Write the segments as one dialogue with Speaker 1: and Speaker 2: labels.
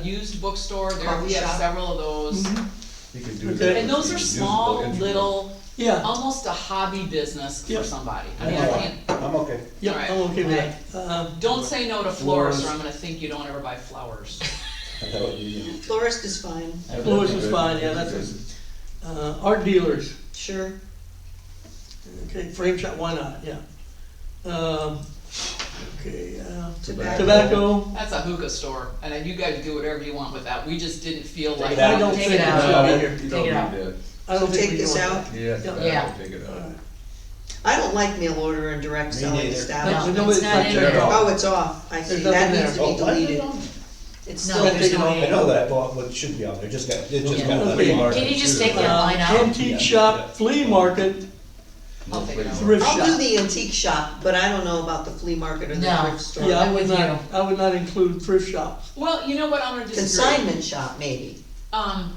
Speaker 1: used bookstore, there,
Speaker 2: Coffee
Speaker 1: we have
Speaker 2: shop.
Speaker 1: several of those.
Speaker 2: Mhm.
Speaker 3: You can do
Speaker 4: Okay.
Speaker 3: that.
Speaker 1: And those
Speaker 3: You
Speaker 1: are
Speaker 3: can do
Speaker 1: small,
Speaker 3: the entry.
Speaker 1: little,
Speaker 4: Yeah,
Speaker 1: almost a hobby business for
Speaker 4: Yep.
Speaker 1: somebody. I mean, I
Speaker 3: I'm
Speaker 1: can't,
Speaker 3: I'm okay.
Speaker 4: yeah,
Speaker 1: Alright,
Speaker 4: I'm okay with that. Um,
Speaker 1: don't say no to florists, or
Speaker 4: Flowers.
Speaker 1: I'm gonna think you don't ever buy flowers.
Speaker 3: That would be, you know,
Speaker 2: Florist is fine,
Speaker 3: that would
Speaker 4: Flowers
Speaker 3: be
Speaker 4: is
Speaker 3: good.
Speaker 4: fine, yeah, that's
Speaker 3: Good.
Speaker 4: uh, art dealers,
Speaker 2: sure.
Speaker 4: okay, frame shop, why not, yeah. Um, okay, uh,
Speaker 2: Tobacco.
Speaker 4: tobacco,
Speaker 1: That's a hookah store, and then you guys do whatever you want with that, we just didn't feel like.
Speaker 3: it
Speaker 4: I
Speaker 3: out.
Speaker 4: don't
Speaker 5: Take
Speaker 4: think
Speaker 5: it
Speaker 4: it
Speaker 5: out.
Speaker 4: should be here.
Speaker 3: You
Speaker 5: Take
Speaker 3: don't
Speaker 5: it out.
Speaker 3: need
Speaker 4: I don't
Speaker 2: So
Speaker 4: think
Speaker 2: take
Speaker 4: we
Speaker 2: this
Speaker 4: want
Speaker 2: out?
Speaker 3: that. Yes,
Speaker 4: Yeah.
Speaker 5: Yeah.
Speaker 3: that would take it out.
Speaker 4: Alright.
Speaker 2: I don't like mail order and direct
Speaker 3: Me
Speaker 2: selling
Speaker 3: neither.
Speaker 2: stuff.
Speaker 4: That's-
Speaker 5: No,
Speaker 4: no,
Speaker 5: it's
Speaker 4: it's
Speaker 5: not
Speaker 4: not
Speaker 5: in
Speaker 3: there.
Speaker 5: there.
Speaker 2: Oh, it's off, I see,
Speaker 4: There's nothing
Speaker 2: that
Speaker 4: there.
Speaker 2: needs to
Speaker 3: Oh,
Speaker 2: be
Speaker 3: why is it
Speaker 2: deleted.
Speaker 3: on?
Speaker 2: It's
Speaker 5: No,
Speaker 2: still
Speaker 4: there's
Speaker 2: there.
Speaker 4: no-
Speaker 3: I know that, but what should be on there, just got, it just
Speaker 5: Yeah.
Speaker 3: got. left
Speaker 4: Okay.
Speaker 3: marked.
Speaker 5: Can you just take that
Speaker 4: Uh,
Speaker 5: line out?
Speaker 4: Antique
Speaker 3: Yeah.
Speaker 4: shop, flea market,
Speaker 1: I'll take it out.
Speaker 4: thrift shop.
Speaker 2: I'll do the antique shop, but I don't know about the flea market or the
Speaker 5: No.
Speaker 2: thrift store.
Speaker 4: Yeah, I
Speaker 5: I'm
Speaker 4: would
Speaker 5: with
Speaker 4: not, I would not include thrift shop.
Speaker 1: Well, you know what, I'm gonna disagree.
Speaker 2: Consignment shop, maybe.
Speaker 1: Um,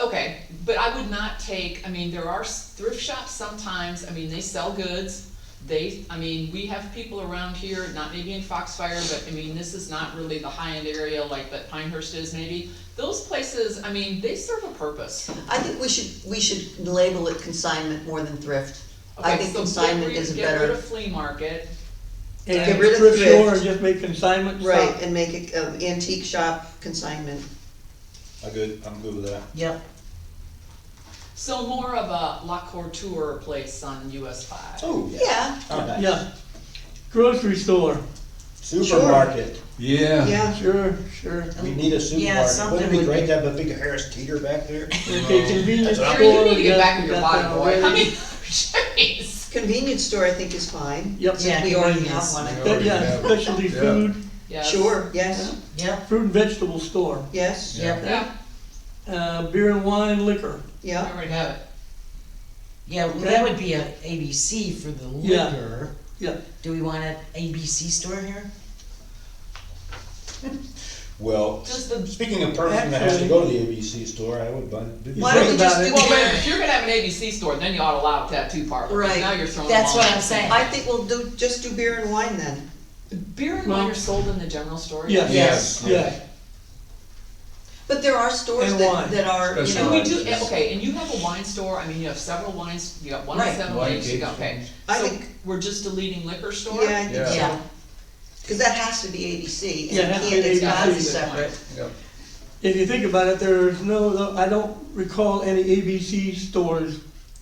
Speaker 1: okay, but I would not take, I mean, there are s- thrift shops sometimes, I mean, they sell goods. They, I mean, we have people around here, not maybe in Foxfire, but I mean, this is not really the high-end area like that Pinehurst is maybe. Those places, I mean, they serve a purpose.
Speaker 2: I think we should, we should label it consignment more than thrift. I
Speaker 1: Okay,
Speaker 2: think
Speaker 1: so get
Speaker 2: consignment
Speaker 1: rid-
Speaker 2: is a
Speaker 1: Get rid
Speaker 2: better,
Speaker 1: of flea market,
Speaker 4: and
Speaker 2: Get rid of
Speaker 4: thrift store
Speaker 2: thrift.
Speaker 4: and just make consignment stuff.
Speaker 2: right, and make it uh, antique shop consignment.
Speaker 3: I'm good, I'm good with that.
Speaker 5: Yep,
Speaker 1: so more of a La Couture place on US five.
Speaker 3: Oh,
Speaker 2: Yeah,
Speaker 3: Oh, nice.
Speaker 4: Yeah. Grocery store,
Speaker 3: Supermarket,
Speaker 6: Yeah,
Speaker 2: yeah,
Speaker 4: sure, sure.
Speaker 3: we need a supermarket,
Speaker 5: something
Speaker 3: wouldn't it
Speaker 5: would
Speaker 3: be great
Speaker 5: be-
Speaker 3: to have a big Harris Teeter back there?
Speaker 4: Okay,
Speaker 3: That's
Speaker 4: convenience store.
Speaker 3: what I'm-
Speaker 1: Sure, you need to get
Speaker 4: yeah,
Speaker 1: back in your
Speaker 4: got that
Speaker 1: body, boy, I
Speaker 4: already.
Speaker 1: mean, jeez.
Speaker 2: convenience store I think is fine.
Speaker 4: Yep.
Speaker 5: yeah,
Speaker 2: we
Speaker 5: you already
Speaker 2: already
Speaker 5: have
Speaker 2: have
Speaker 5: one, I
Speaker 3: one.
Speaker 4: That-
Speaker 5: think.
Speaker 4: Yeah, specialty
Speaker 6: Yeah.
Speaker 4: food,
Speaker 1: Yes.
Speaker 2: Sure, yes,
Speaker 5: yep,
Speaker 4: fruit and vegetable store,
Speaker 2: yes,
Speaker 5: yep,
Speaker 1: Yeah,
Speaker 4: uh, beer and wine liquor.
Speaker 1: I
Speaker 2: yeah,
Speaker 1: already have it.
Speaker 5: yeah, well, that would be a ABC for the
Speaker 4: Yeah.
Speaker 5: liquor.
Speaker 4: Yeah.
Speaker 5: Do we want an ABC store here?
Speaker 3: Well,
Speaker 1: Just the,
Speaker 3: speaking of person that has to go to the ABC store, I would buy. do-
Speaker 2: Why don't we
Speaker 4: Think
Speaker 2: just
Speaker 4: about
Speaker 2: do
Speaker 4: it.
Speaker 1: well, wait, if you're gonna have an ABC store, then you ought to allow a tattoo parlor, 'cause
Speaker 2: Right.
Speaker 1: now you're throwing them
Speaker 5: That's
Speaker 1: all
Speaker 5: what
Speaker 1: in.
Speaker 5: I'm saying.
Speaker 2: I think we'll do, just do beer and wine then.
Speaker 1: Beer and wine are sold in the general store?
Speaker 4: Yes.
Speaker 3: Yes.
Speaker 4: Yeah,
Speaker 2: But there are stores
Speaker 4: And
Speaker 2: that,
Speaker 4: wine.
Speaker 2: that are, you
Speaker 1: And
Speaker 2: know,
Speaker 1: we do, and- okay, and you have a wine store, I mean, you have several wines, you got one
Speaker 5: Right.
Speaker 1: seven
Speaker 6: Wine
Speaker 1: days, you got,
Speaker 6: tasting.
Speaker 1: okay.
Speaker 2: I
Speaker 1: So
Speaker 2: think-
Speaker 1: we're just deleting liquor store?
Speaker 2: yeah, I think
Speaker 5: Yeah.
Speaker 2: so. Cause that has to be ABC,
Speaker 4: Yeah, it
Speaker 2: and
Speaker 4: has
Speaker 2: it
Speaker 4: to
Speaker 2: can't,
Speaker 4: be
Speaker 2: it's gotta be
Speaker 4: ABC.
Speaker 2: separate.
Speaker 4: if you think about it, there's no, I don't recall any ABC stores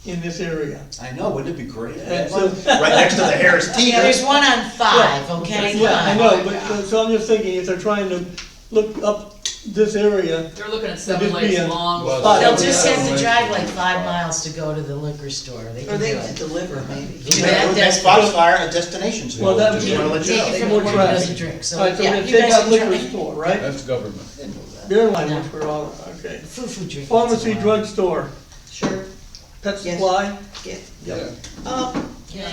Speaker 4: in this area.
Speaker 3: I know, wouldn't it be great?
Speaker 4: And so-
Speaker 3: Right next to the Harris
Speaker 5: Yeah,
Speaker 3: Teeter.
Speaker 5: there's one on five, okay?
Speaker 4: Yeah, I
Speaker 5: Come on.
Speaker 4: know, but, but- so I'm just thinking, if they're trying to look up this area,
Speaker 1: They're looking at seven
Speaker 4: Just be
Speaker 1: lakes
Speaker 4: a-
Speaker 1: long.
Speaker 6: Well,
Speaker 4: Five.
Speaker 5: They'll just have
Speaker 6: Yeah.
Speaker 5: to drive like five miles to go to the liquor store, they
Speaker 2: Or
Speaker 5: can do
Speaker 2: they could
Speaker 5: it.
Speaker 2: deliver maybe.
Speaker 5: Yeah, that-
Speaker 3: That's Foxfire, a destination store.
Speaker 4: Well, that'd
Speaker 3: Just
Speaker 4: be-
Speaker 3: wanna let you know.
Speaker 5: Take it from the
Speaker 4: More
Speaker 5: one who doesn't
Speaker 4: traffic.
Speaker 5: drink, so,
Speaker 4: alright, so we're
Speaker 5: yeah,
Speaker 4: gonna
Speaker 5: you
Speaker 4: take
Speaker 5: guys
Speaker 4: out liquor
Speaker 5: can try.
Speaker 4: store, right?
Speaker 6: that's government.
Speaker 4: Beer and wine,
Speaker 5: No.
Speaker 4: which we're all, okay.
Speaker 5: Foo-foo drinking.
Speaker 4: Pharmacy, drugstore,
Speaker 2: Sure,
Speaker 4: pet
Speaker 2: Yes.
Speaker 4: supply,
Speaker 2: yeah,
Speaker 6: Yeah.
Speaker 2: um,
Speaker 5: Yeah,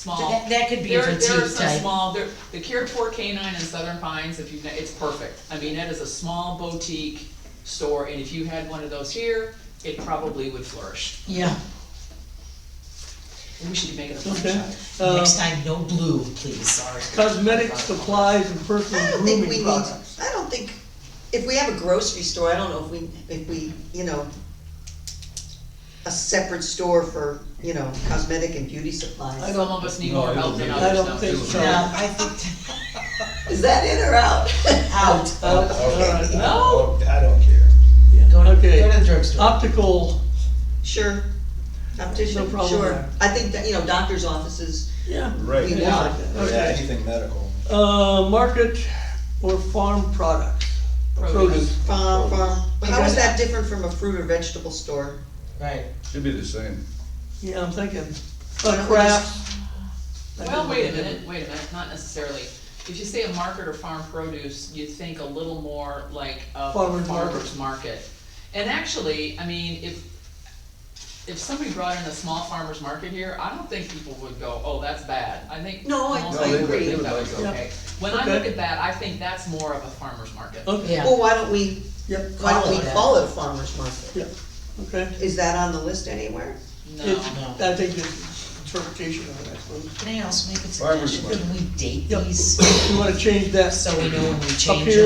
Speaker 1: Small.
Speaker 5: that, that could be a
Speaker 1: There, there are
Speaker 5: petite
Speaker 1: some
Speaker 5: type.
Speaker 1: small, there, the Cure Four Canine in Southern Pines, if you, it's perfect. I mean, that is a small boutique store, and if you had one of those here, it probably would flourish.
Speaker 5: Yeah,
Speaker 1: We should make it a
Speaker 4: okay.
Speaker 1: franchise.
Speaker 4: Uh,
Speaker 5: next time, no blue, please.
Speaker 4: cosmetic supplies and
Speaker 2: I
Speaker 4: personal
Speaker 2: don't think we
Speaker 4: grooming
Speaker 2: need,
Speaker 4: products.
Speaker 2: I don't think, if we have a grocery store, I don't know if we, if we, you know, a separate store for, you know, cosmetic and beauty supplies.
Speaker 1: Some of us need more
Speaker 6: No,
Speaker 1: help than
Speaker 6: I
Speaker 1: others,
Speaker 4: don't
Speaker 1: don't
Speaker 4: think
Speaker 1: we?
Speaker 4: so.
Speaker 5: Yeah, I think,
Speaker 2: Is that in or out?
Speaker 5: out,
Speaker 4: Uh, alright.
Speaker 1: No?
Speaker 3: I don't care.
Speaker 5: go to,
Speaker 4: Okay.
Speaker 5: go to the drugstore.
Speaker 4: Optical,
Speaker 2: Sure. Optician,
Speaker 4: problem
Speaker 2: sure.
Speaker 4: there.
Speaker 2: I think that, you know, doctor's offices,
Speaker 4: yeah,
Speaker 3: Right.
Speaker 2: We
Speaker 3: Yeah,
Speaker 2: want.
Speaker 4: okay.
Speaker 3: anything medical.
Speaker 4: Uh, market or farm products, produce.
Speaker 2: farm, farm. How is that different from a fruit or vegetable store?
Speaker 5: Right.
Speaker 6: Should be the same.
Speaker 4: Yeah, I'm thinking,
Speaker 2: Why
Speaker 4: uh,
Speaker 2: don't we
Speaker 4: crafts.
Speaker 1: Well, wait a minute, wait a minute, not necessarily. If you say a market or farm produce, you think a little more like a
Speaker 4: Farmer's market.
Speaker 1: farmer's market. And actually, I mean, if, if somebody brought in a small farmer's market here, I don't think people would go, oh, that's bad. I think
Speaker 2: No, I-
Speaker 1: most
Speaker 2: I
Speaker 1: people would
Speaker 2: agree.
Speaker 1: think that was
Speaker 6: Yeah.
Speaker 1: okay. When I look
Speaker 4: Okay.
Speaker 1: at that, I think that's more of a farmer's market.
Speaker 4: Okay,
Speaker 5: Yeah.
Speaker 2: Well, why don't we,
Speaker 4: yep,
Speaker 2: why don't
Speaker 5: Call it
Speaker 2: we
Speaker 5: that.
Speaker 2: call it a farmer's market?
Speaker 4: yep, okay.
Speaker 2: Is that on the list anywhere?
Speaker 1: No,
Speaker 4: It's,
Speaker 5: No.
Speaker 4: I think it's interpretation of it, I suppose.
Speaker 5: Can I also make a
Speaker 6: Farmer's
Speaker 5: suggestion? Can we date
Speaker 4: Yep.
Speaker 5: these
Speaker 4: You wanna change that
Speaker 5: so we know when we change
Speaker 4: here.
Speaker 5: them?